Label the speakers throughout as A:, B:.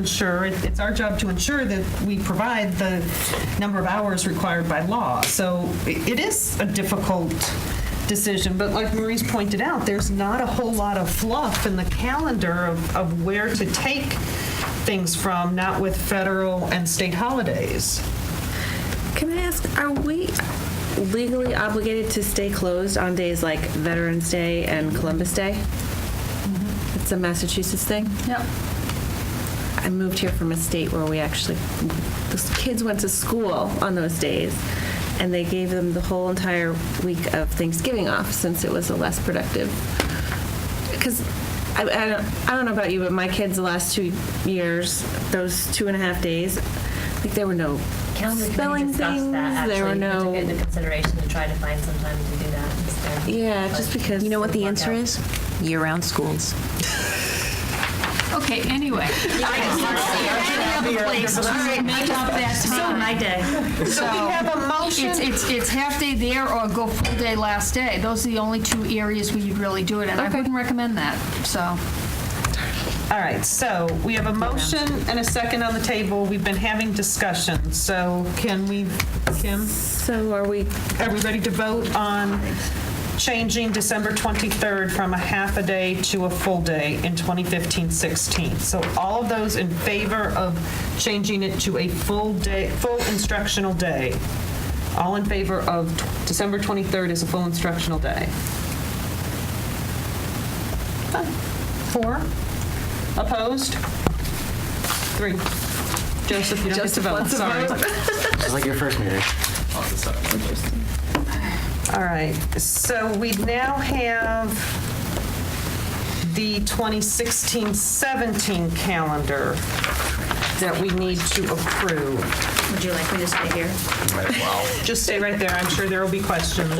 A: ensure, it's our job to ensure that we provide the number of hours required by law. So i- it is a difficult decision, but like Marie's pointed out, there's not a whole lot of fluff in the calendar of, of where to take things from, not with federal and state holidays.
B: Can I ask, are we legally obligated to stay closed on days like Veterans Day and Columbus Day? It's a Massachusetts thing? Yep. I moved here from a state where we actually, the kids went to school on those days, and they gave them the whole entire week of Thanksgiving off since it was a less productive. Because I, I, don't, I don't know about you, but my kids the last two years, those two and a half days, like there were no
C: Calendar committee
B: spelling
C: discussed
B: things.
C: that,
B: there were
C: actually. We
B: no.
C: took it into consideration to try to find some time to do that. instead.
B: Yeah,
C: But-
B: just because.
D: You know what the
C: Workout.
D: answer is? Year-round schools.
E: Okay, anyway. I don't have a place to make up that time. My day.
A: So we have a motion.
E: It's, it's, it's half day there or go full day last day. Those are the only two areas where you'd really do it, and I wouldn't recommend that, so.
A: All right, so we have a motion and a second on the table. We've been having discussion, so can we, Kim?
B: So are we,
A: Are we ready to vote on changing December 23rd from a half a day to a full day in 2015-16? So all of those in favor of changing it to a full day, full instructional day? All in favor of t- December 23rd as a full instructional day? Fine. Four? Opposed? Three. Joseph, you don't get to vote, sorry.
F: Just like your first meeting.
A: All right, so we now have the 2016-17 calendar that we need to approve.
C: Would you like me to stay here?
A: Just stay right there, I'm sure there will be questions.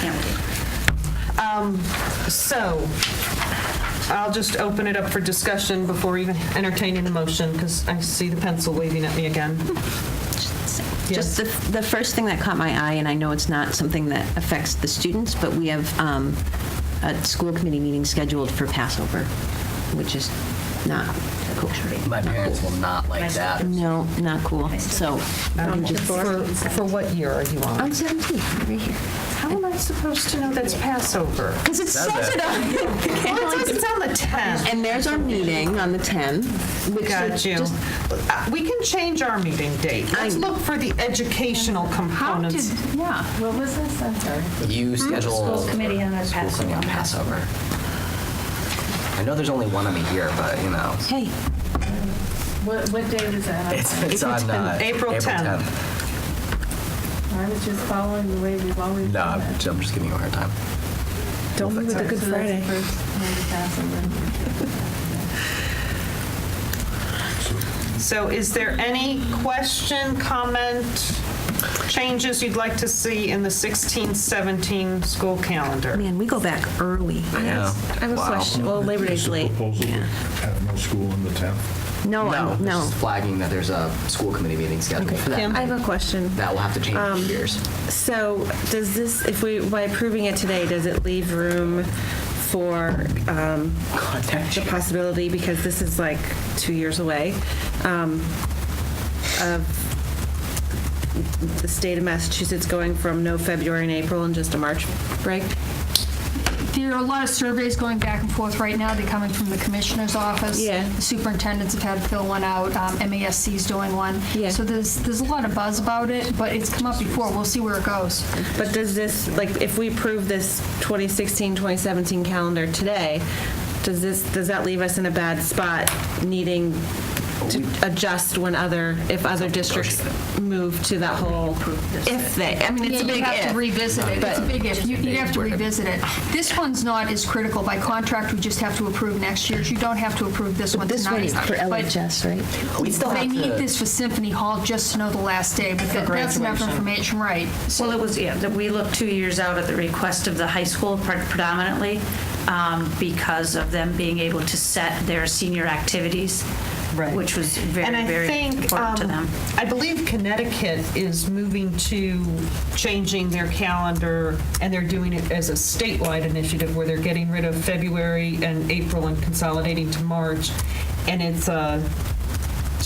C: Can't wait.
A: So I'll just open it up for discussion before even entertaining the motion, because I see the pencil waving at me again.
D: Just the, the first thing that caught my eye, and I know it's not something that affects the students, but we have um, a school committee meeting scheduled for Passover, which is not cool.
F: My parents will not like that.
D: No, not cool. So I'm just,
A: Um, For for what year are you on?
D: I'm 17, right here.
A: How am I supposed to know that's Passover?
D: Because it says it on the
A: Well, it
D: calendar.
A: says on the 10th.
D: And there's our meeting on the 10th. which
A: Got
D: is
A: you.
D: just-
A: Uh, We can change our meeting date. Let's look for the educational
E: How did,
A: components.
E: yeah.
C: What was this? I'm sorry.
F: You schedule.
C: School committee on the
F: School committee on Passover. I know there's only one of them a year, but you know.
D: Hey,
C: What, what day was that?
F: It's, it's
A: April
F: on uh,
A: 10th. April 10th.
C: I was just following the way we've always
F: No, I'm just, I'm just giving you a hard time.
B: don't move with the Good Friday.
A: So is there any question, comment, changes you'd like to see in the 16-17 school calendar?
D: man, we go back early.
F: Yeah.
B: I have a
F: Wow.
B: question. Well, Labor Day's late.
G: Proposal to have no school on the 10th.
B: Oh,
D: No,
F: No,
D: I'm- no.
F: Just flagging that there's a school committee meeting scheduled for that.
B: I have a question.
F: That will have to change years.
B: So does this, if we, by approving it today, does it leave room for um, the possibility, because this is like two years away, um, of the state of Massachusetts going from no February and April and just a March break?
E: There are a lot of surveys going back and forth right now. They're coming from the commissioner's office.
B: Yeah.
E: The superintendents have had to fill one out. Um, MASC's doing one.
B: Yeah.
E: So there's, there's a lot of buzz about it, but it's come up before. We'll see where it goes.
B: But does this, like, if we approve this 2016, 2017 calendar today, does this, does that leave us in a bad spot needing to adjust when other, if other districts move to that whole, if they, I mean, it's a
E: Yeah,
B: big
E: you have to
B: if.
E: revisit it. It's a big if. You- You'd have to revisit it. This one's not as critical. By contract, we just have to approve next year's. You don't have to approve this one
D: This one
E: tonight.
D: is for
E: But
D: LHS, right?
F: We still
E: They
F: have
E: need
F: to-
E: this for Symphony Hall just to know the last day, but that- that's enough
A: graduation.
E: information, right.
H: Well, it was, yeah, that we looked two years out at the request of the high school pre- predominantly um, because of them being able to set their senior activities,
A: Right.
H: which was
A: And
H: very,
A: I
H: very
A: think,
H: important to
A: um,
H: them.
A: I believe Connecticut is moving to changing their calendar, and they're doing it as a statewide initiative where they're getting rid of February and April and consolidating to March. And it's a